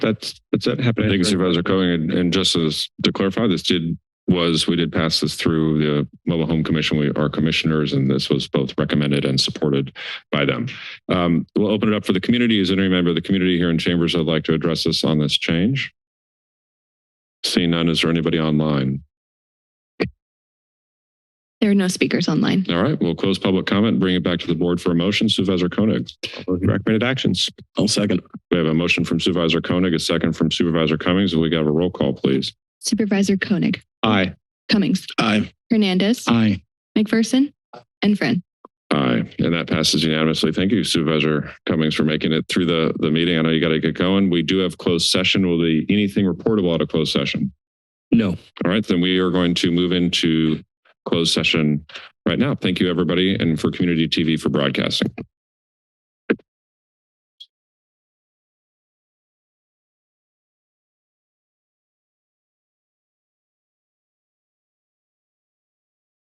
that's, that's it happening. Thank you Supervisor Cohen. And, and just as to clarify, this did, was, we did pass this through the Mobile Home Commission. We are commissioners and this was both recommended and supported by them. Um, we'll open it up for the community. Is there any member of the community here in chambers that'd like to address us on this change? Seeing none, is there anybody online? There are no speakers online. All right, we'll close public comment, and bring it back to the board for a motion. Supervisor Koenig. Recommended actions. I'll second. We have a motion from Supervisor Koenig, a second from Supervisor Cummings. and We got a roll call, please. Supervisor Koenig, Aye. Cummings, Aye. Hernandez, Aye. McPherson, and Friend. Aye, and that passes unanimously. Thank you Supervisor Cummings for making it through the, the meeting. I know you got to get going. We do have closed session. Will be anything reportable out of closed session? No. All right, then we are going to move into closed session right now. Thank you, everybody, and for Community TV for broadcasting.